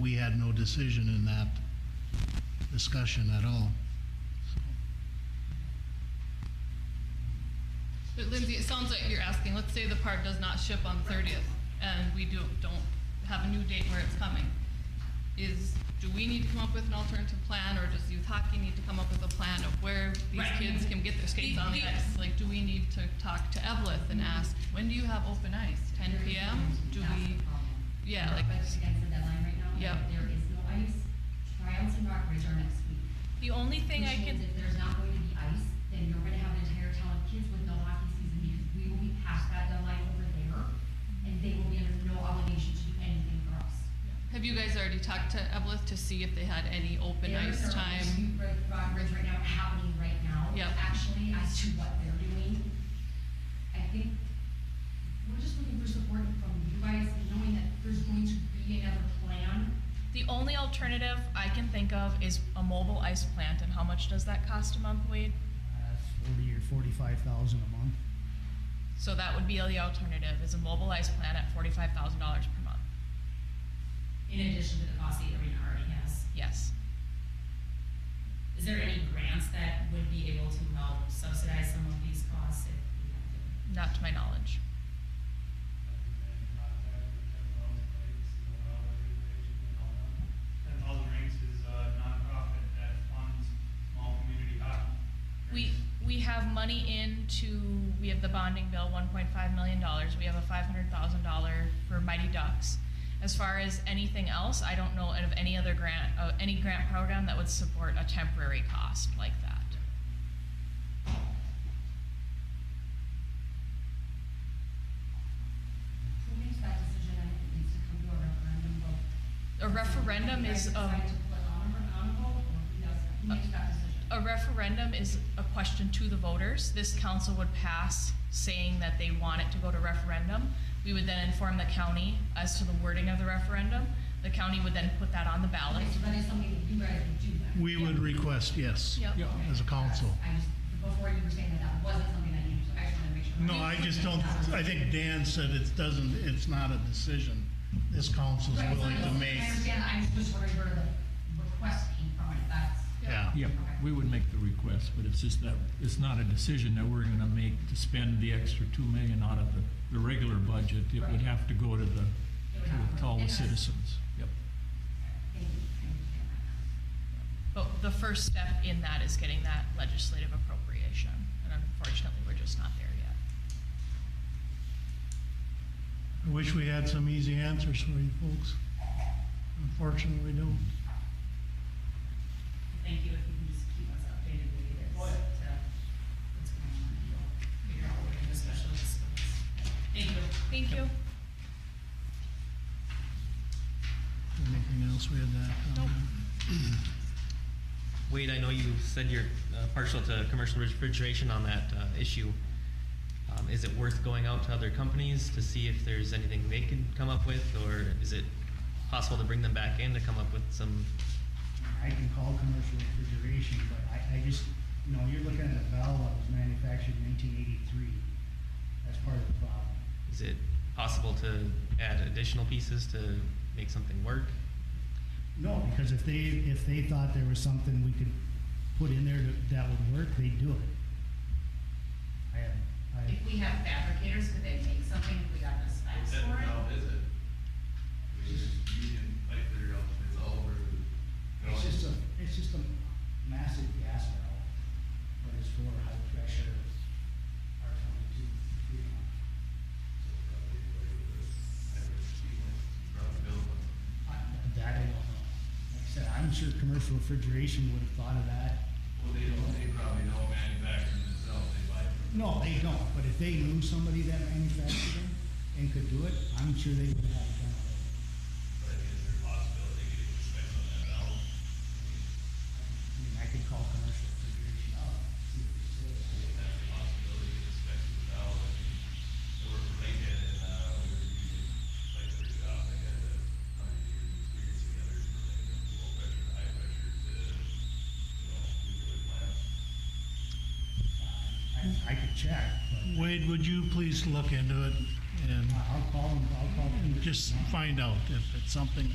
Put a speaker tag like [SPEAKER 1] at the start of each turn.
[SPEAKER 1] we had no decision in that discussion at all.
[SPEAKER 2] But Lindsay, it sounds like you're asking, let's say the part does not ship on the 30th, and we do, don't have a new date where it's coming. Is, do we need to come up with an alternative plan, or does youth hockey need to come up with a plan of where these
[SPEAKER 3] Right.
[SPEAKER 2] kids can get their skates on the
[SPEAKER 3] The- the-
[SPEAKER 2] ice? Like, do we need to talk to Evelith and ask, when do you have open ice? 10 PM? Do
[SPEAKER 4] That's
[SPEAKER 2] we,
[SPEAKER 4] the problem.
[SPEAKER 2] yeah,
[SPEAKER 4] We're
[SPEAKER 2] like-
[SPEAKER 4] up against the deadline right now.
[SPEAKER 2] Yep.
[SPEAKER 4] There is no ice. Tryouts in Rockbridge are next week.
[SPEAKER 5] The only thing I
[SPEAKER 4] Which
[SPEAKER 5] can,
[SPEAKER 4] means If there's not going to be ice, then you're gonna have an entire town of kids with no hockey season because we will be past that deadline over there and they will be under no obligation to do anything for us.
[SPEAKER 2] have you guys already talked to Evelith to see if they had any open
[SPEAKER 4] There
[SPEAKER 2] ice
[SPEAKER 4] are
[SPEAKER 2] time?
[SPEAKER 4] issues with Rockbridge right now happening right now.
[SPEAKER 2] Yep.
[SPEAKER 4] Actually, as to what they're doing, I think we're just looking for support from you guys, knowing that there's going to be another plan.
[SPEAKER 5] the only alternative I can think of is a mobile ice plant, and how much does that cost a month, Wade?
[SPEAKER 6] Uh, Forty or forty-five thousand a month.
[SPEAKER 5] So that would be the alternative, is a mobile ice plant at forty-five thousand dollars per month,
[SPEAKER 3] In addition to the cost the arena already has,
[SPEAKER 5] yes.
[SPEAKER 3] is there any grants that would be able to help subsidize some of these costs if we have to?
[SPEAKER 5] Not to my knowledge.
[SPEAKER 7] And Thousand Ranks is a nonprofit that funds small community hockey.
[SPEAKER 5] We, we have money in to, we have the bonding bill, one point five million dollars, we have a five hundred thousand dollar for Mighty Ducks. As far as anything else, I don't know of any other grant, uh, any grant program that would support a temporary cost like that.
[SPEAKER 4] Who makes that decision and it needs to come to a referendum vote?
[SPEAKER 5] A referendum is,
[SPEAKER 4] You
[SPEAKER 5] um,
[SPEAKER 4] guys decide to put on a, on a vote or who does that? Who makes that decision?
[SPEAKER 5] a referendum is a question to the voters. This council would pass saying that they want it to go to referendum. We would then inform the county as to the wording of the referendum. The county would then put that on the ballot.
[SPEAKER 4] Okay, so that is something that you guys would do then?
[SPEAKER 1] We would request yes.
[SPEAKER 5] Yep.
[SPEAKER 6] Yeah.
[SPEAKER 4] Okay,
[SPEAKER 1] as a council.
[SPEAKER 4] I just, before you were saying that, that wasn't something that you, so I just wanted to make sure.
[SPEAKER 1] No, I just don't, I think Dan said it doesn't, it's not a decision this council's
[SPEAKER 4] Right, so I
[SPEAKER 1] willing to
[SPEAKER 4] don't-
[SPEAKER 1] make.
[SPEAKER 4] I understand, I'm just wondering where the request came from, if that's.
[SPEAKER 1] Yeah.
[SPEAKER 8] Yeah, we would make the request, but it's just that, it's not a decision that we're gonna make to spend the extra two million out of the, the regular budget. It would have to go to the, to all the citizens. Yep.
[SPEAKER 4] Thank you, I understand that now.
[SPEAKER 5] But the first step in that is getting that legislative appropriation. And unfortunately, we're just not there yet.
[SPEAKER 1] I wish we had some easy answers for you folks. Unfortunately, we don't.
[SPEAKER 3] Thank you, if you can just keep us updated with it,
[SPEAKER 7] What?
[SPEAKER 3] to what's going on, and we'll figure out what the special is. Thank you.
[SPEAKER 5] Thank you.
[SPEAKER 1] Anything else we had that?
[SPEAKER 5] Nope.
[SPEAKER 9] Wade, I know you said you're uh, partial to commercial refrigeration on that uh, issue. Um, Is it worth going out to other companies to see if there's anything they can come up with? Or is it possible to bring them back in to come up with some,
[SPEAKER 6] I can call commercial refrigeration, but I, I just, you know, you're looking at a valve that was manufactured in nineteen eighty-three. That's part of the problem.
[SPEAKER 9] is it possible to add additional pieces to make something work?
[SPEAKER 6] No, because if they, if they thought there was something we could put in there that- that would work, they'd do it. I have, I have
[SPEAKER 3] If we have fabricators, could they make something if we got the specs
[SPEAKER 10] That
[SPEAKER 3] for it?
[SPEAKER 10] valve is it? I mean, it's union pipe there, it's all over. uh, the-
[SPEAKER 6] It's just a, it's just a massive gas valve, but it's for high pressure R twenty-two freon. I- That I don't know. Like I said, I'm sure commercial refrigeration would have thought of that.
[SPEAKER 10] Well, they don't, they probably don't manufacture them themselves, they buy it from.
[SPEAKER 6] No, they don't, but if they knew somebody that manufactured them and could do it, I'm sure they would have done it.
[SPEAKER 10] But I mean, is there a possibility they could inspect on that valve?
[SPEAKER 6] I mean, I could call commercial refrigeration up, see what they say.
[SPEAKER 10] If that's a possibility, they could inspect the valve, I mean, I worked for Lincoln and, uh, we were using pipe for the job, they had a hundred years of experience together, from like low pressure, to high pressure to, you know, nuclear plants.
[SPEAKER 6] I, I could check, but
[SPEAKER 1] Wade, would you please look into it and
[SPEAKER 6] I'll call them, I'll call them.
[SPEAKER 1] just find out if it's something